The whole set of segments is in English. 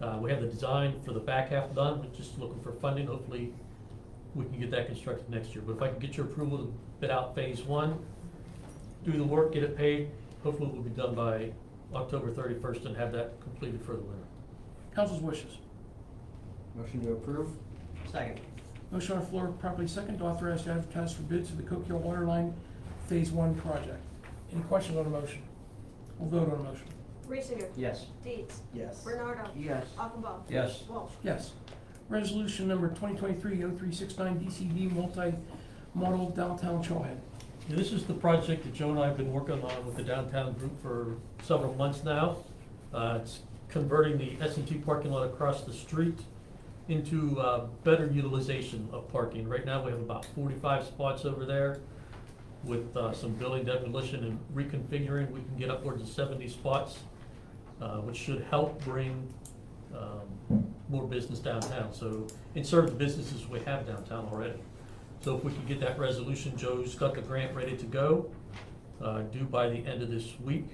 Uh, we have the design for the back half done, we're just looking for funding, hopefully we can get that constructed next year. But if I can get your approval to bid out phase one, do the work, get it paid, hopefully we'll be done by October thirty-first and have that completed for the winter. Council's wishes. Motion to approve? Second. Motion on the floor, properly second, to authorize to advertise for bids for the Cook Hill Water Line Phase One project. Any questions on the motion? We'll vote on the motion. Reesinger. Yes. Deeds. Yes. Bernardo. Yes. Achenbaum. Yes. Walsh. Yes. Resolution number 2023-0369, DCD multi-model downtown trailhead. Yeah, This is the project that Joe and I have been working on with the downtown group for several months now. Uh, It's converting the S and T parking lot across the street into uh, better utilization of parking. Right now, we have about forty-five spots over there. With uh, some building demolition and reconfiguring, we can get upwards of seventy spots, uh, which should help bring um, more business downtown. So, and serve the businesses we have downtown already. So if we can get that resolution, Joe's got the grant ready to go, uh, due by the end of this week.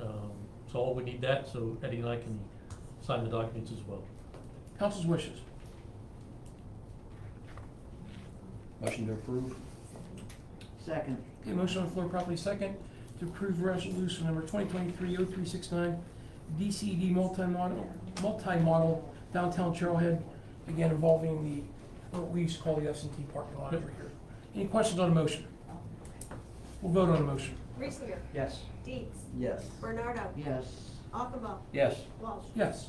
Um, So all we need that, so Eddie and I can sign the documents as well. Council's wishes. Motion to approve? Second. Okay, motion on the floor, properly second, to approve resolution number 2023-0369, DCD E multi-model, multi-model downtown trailhead, again involving the, what we used to call the s and T parking lot over here. Any questions on the motion? We'll vote on the motion. Reesinger. Yes. Deeds. Yes. Bernardo. Yes. Achenbaum. Yes. Walsh. Yes.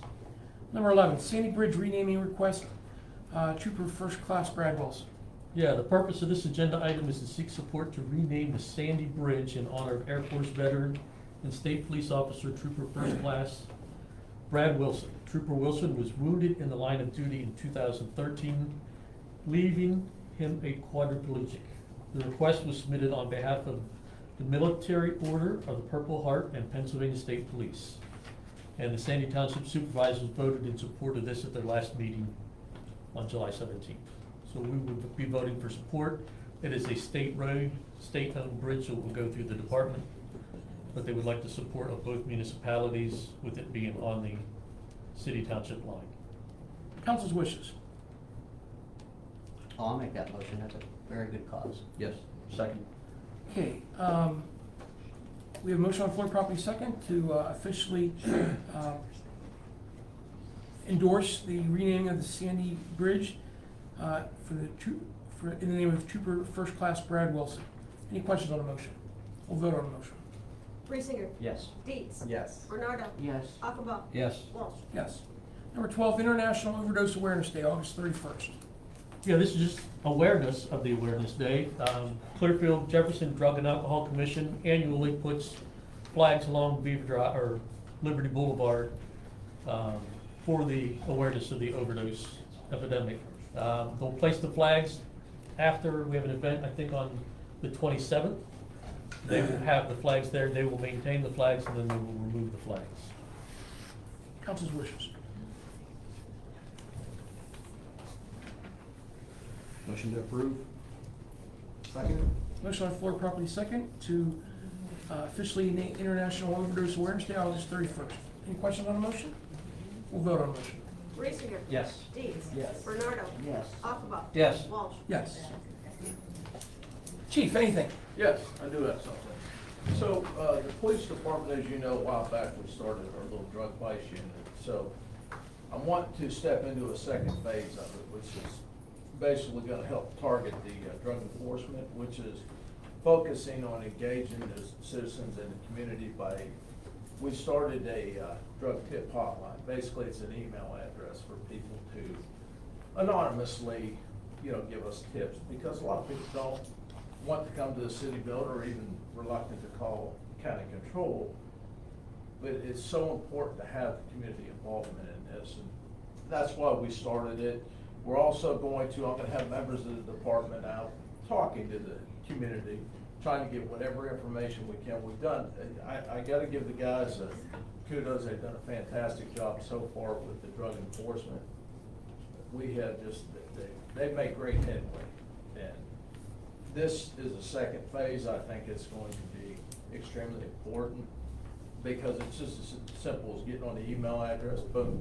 Number 11, Sandy Bridge renaming request, uh, Trooper First Class Brad Wilson. Yeah, the purpose of this agenda item is to seek support to rename the Sandy Bridge in honor of Air Force veteran and state police officer Trooper First Class Brad Wilson. Trooper Wilson was wounded in the line of duty in 2013, leaving him a quadriplegic. The request was submitted on behalf of the Military Order of the Purple Heart and Pennsylvania State Police. And the Sandy Township Supervisors voted in support of this at their last meeting on July seventeenth. So we would be voting for support. It is a state road, state-owned bridge that will go through the department, but they would like the support of both municipalities with it being on the city township line. Council's wishes. Oh, I'll make that motion. That's a very good cause. Yes. Second? Okay, um, we have a motion on the floor, property second, to uh, officially, uh, endorse the renaming of the Sandy Bridge, uh, for the troop, for, in the name of Trooper First Class Brad Wilson. Any questions on the motion? We'll vote on the motion. Reesinger. Yes. Deeds. Yes. Bernardo. Yes. Achenbaum. Yes. Walsh. Yes. Number twelve, International Overdose Awareness Day, August thirty-first. Yeah, this is just awareness of the Awareness Day. Um, Clearfield Jefferson Drug and Alcohol Commission annually puts flags along Beaver Drive, or Liberty Boulevard, um, for the awareness of the overdose epidemic. Um, They'll place the flags after, we have an event, I think, on the twenty-seventh. They will have the flags there, they will maintain the flags, and then they will remove the flags. Council's wishes. Motion to approve? Second? Motion on the floor, property second, to uh, officially name International Overdose Awareness Day, August thirty-first. Any questions on the motion? We'll vote on the motion. Reesinger. Yes. Deeds. Yes. Bernardo. Yes. Achenbaum. Yes. Walsh. Yes. Chief, anything? Yes, I do have something. So, uh, the police department, as you know, a while back, we started our little drug vice unit. So I want to step into a second phase of it, which is basically gonna help target the uh, drug enforcement, which is focusing on engaging the citizens in the community by, we started a uh, drug tip hotline. Basically, it's an email address for people to anonymously, you know, give us tips, because a lot of people don't want to come to the city builder or even reluctant to call county control. But it's so important to have the community involvement in this, and that's why we started it. We're also going to, I'm gonna have members of the department out talking to the community, trying to get whatever information we can. We've done, I, I gotta give the guys a kudos, they've done a fantastic job so far with the drug enforcement. We have just, they, they make great headway, and this is the second phase, I think it's going to be extremely important, because it's just as simple as getting on the email address, boom,